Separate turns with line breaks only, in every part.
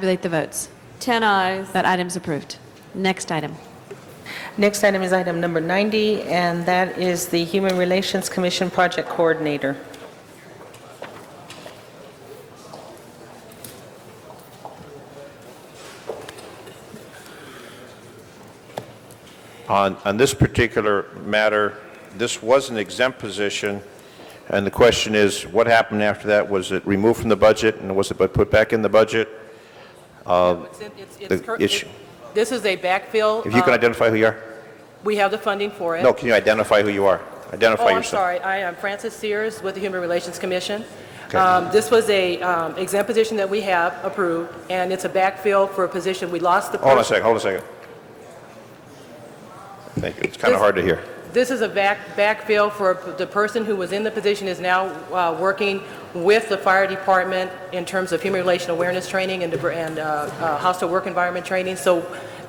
Tabulate the votes.
10 eyes.
That item's approved. Next item.
Next item is item number 90, and that is the Human Relations Commission Project Coordinator.
On, on this particular matter, this was an exempt position, and the question is, what happened after that? Was it removed from the budget, and was it put back in the budget?
It's- it's-
The
it's cur-
issue-
it- This is a backfill.
If you can
uh,
identify who you are?
We have the funding for it.
No, can you identify who you are?
Oh,
Identify
I'm
yourself.
sorry. I am Frances Sears with the Human Relations Commission.
Okay.
Um, This was a um, exempt position that we have approved, and it's a backfill for a position, we lost the person.
Hold on a second, hold on a second. Thank you, it's kind of
This-
hard to hear.
This is a back, backfill for p- the person who was in the position is now uh, working with the fire department in terms of human relation awareness training and diver- and, uh, uh, hostile work environment training. So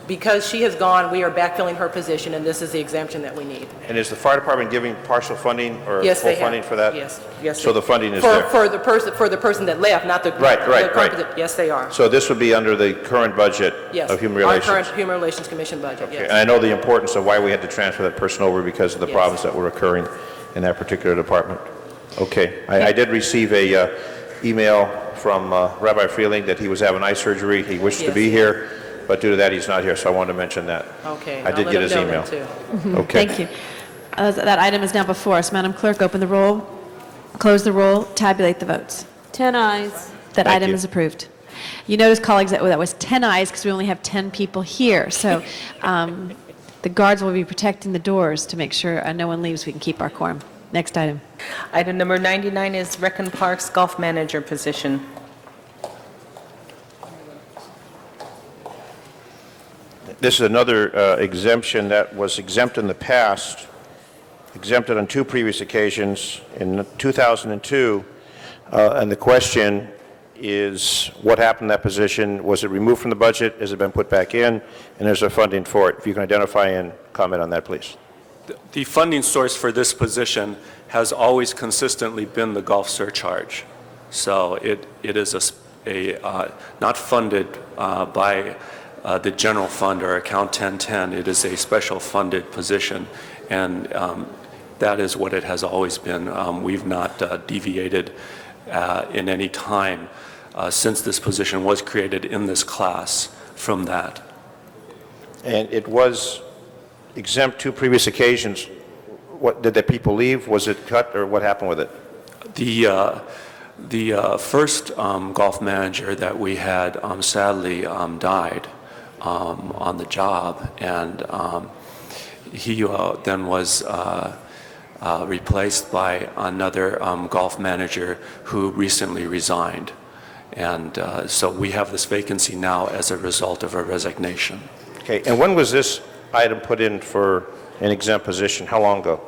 because she has gone, we are backfilling her position, and this is the exemption that we need.
And is the fire department giving partial funding or
Yes,
full
they have.
funding for that?
Yes, yes.
So
they-
the funding is
for-
there?
For the person, for the person that left, not the.
Right, right,
the
right.
competent- Yes, they are.
So this would be under the current budget
Yes.
of human relations?
Our current Human Relations Commission budget,
Okay, And
yes.
I know the importance of why we had to transfer that person over because of the
Yes.
problems that were occurring in that particular department. Okay, I, I did receive a uh, email from uh, Rabbi Freeling that he was having eye surgery, he wished to
Yes.
be here, but due to that, he's not here, so I wanted to mention that.
Okay.
I
I'll
did
let
get
them
his
know that
email.
too.
Okay.
Thank you. Uh, That item is now before us. Madam Clerk, open the roll, close the roll, tabulate the votes.
10 eyes.
That
Thank
item
you.
is approved. You notice, colleagues, that that was 10 ayes because we only have 10 people here. So um, the guards will be protecting the doors to make sure uh, no one leaves, we can keep our quorum. Next item.
Item number 99 is Recon Park's Golf Manager position.
This is another uh, exemption that was exempt in the past, exempted on two previous occasions, in 2002. uh, And the question is, what happened to that position? Was it removed from the budget? Has it been put back in? And is there funding for it? If you can identify and comment on that, please.
The funding source for this position has always consistently been the golf surcharge. So it, it is a s- a, uh, not funded uh, by uh, the general fund or account 1010. It is a special funded position, and um, that is what it has always been. Um, We've not uh, deviated uh, in any time uh, since this position was created in this class from that.
And it was exempt two previous occasions. What, did the people leave? Was it cut, or what happened with it?
The, uh, the uh, first um, golf manager that we had um, sadly um, died um, on the job, and um, he uh, then was uh, uh, replaced by another um, golf manager who recently resigned. And uh, so we have this vacancy now as a result of a resignation.
Okay, and when was this item put in for an exempt position? How long ago?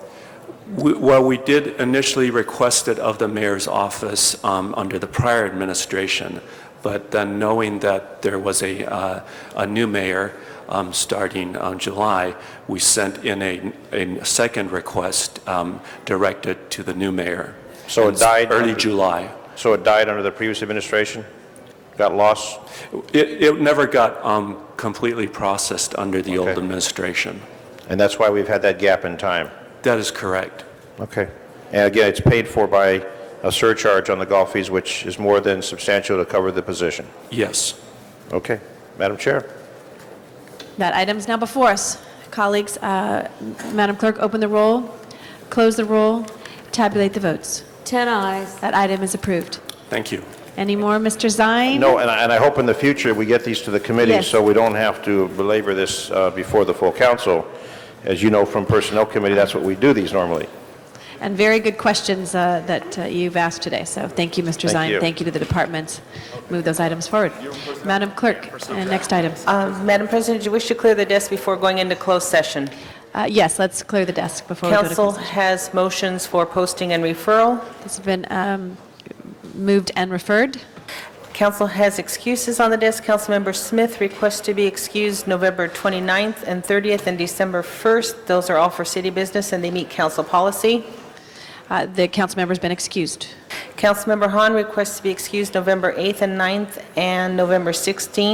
We- Well, we did initially request it of the mayor's office um, under the prior administration, but then knowing that there was a, uh, a new mayor um, starting on July, we sent in a, a second request um, directed to the new mayor.
So it
In
died
Early
under-
July.
So it died under the previous administration? Got lost?
It, it never got um, completely processed under the old
Okay.
administration.
And that's why we've had that gap in time?
That is correct.
Okay. And again, it's paid for by a surcharge on the golf fees, which is more than substantial to cover the position.
Yes.
Okay. Madam Chair?
That item's now before us. Colleagues, uh, Madam Clerk, open the roll, close the roll, tabulate the votes.
10 eyes.
That item is approved.
Thank you.
Any more, Mr. Zine?
No, and I, and I hope in the future we get these to the committee,
Yes.
so we don't have to belabor this uh, before the full council. As you know from Personnel Committee, that's what we do these normally.
And very good questions uh, that uh, you've asked today, so thank you, Mr.
Thank
Zine.
you.
Thank you to the departments. Move those items forward. Madam Clerk, uh, next item.
Um, Madam President, do you wish to clear the desk before going into closed session?
Uh, Yes, let's clear the desk before we go to...
Council
closed-
has motions for posting and referral.
This has been um, moved and referred.
Council has excuses on the desk. Councilmember Smith requests to be excused November 29th and 30th and December 1st. Those are all for city business, and they meet council policy.
Uh, The council member's been excused.
Councilmember Hahn requests to be excused November 8th and 9th and November 16th.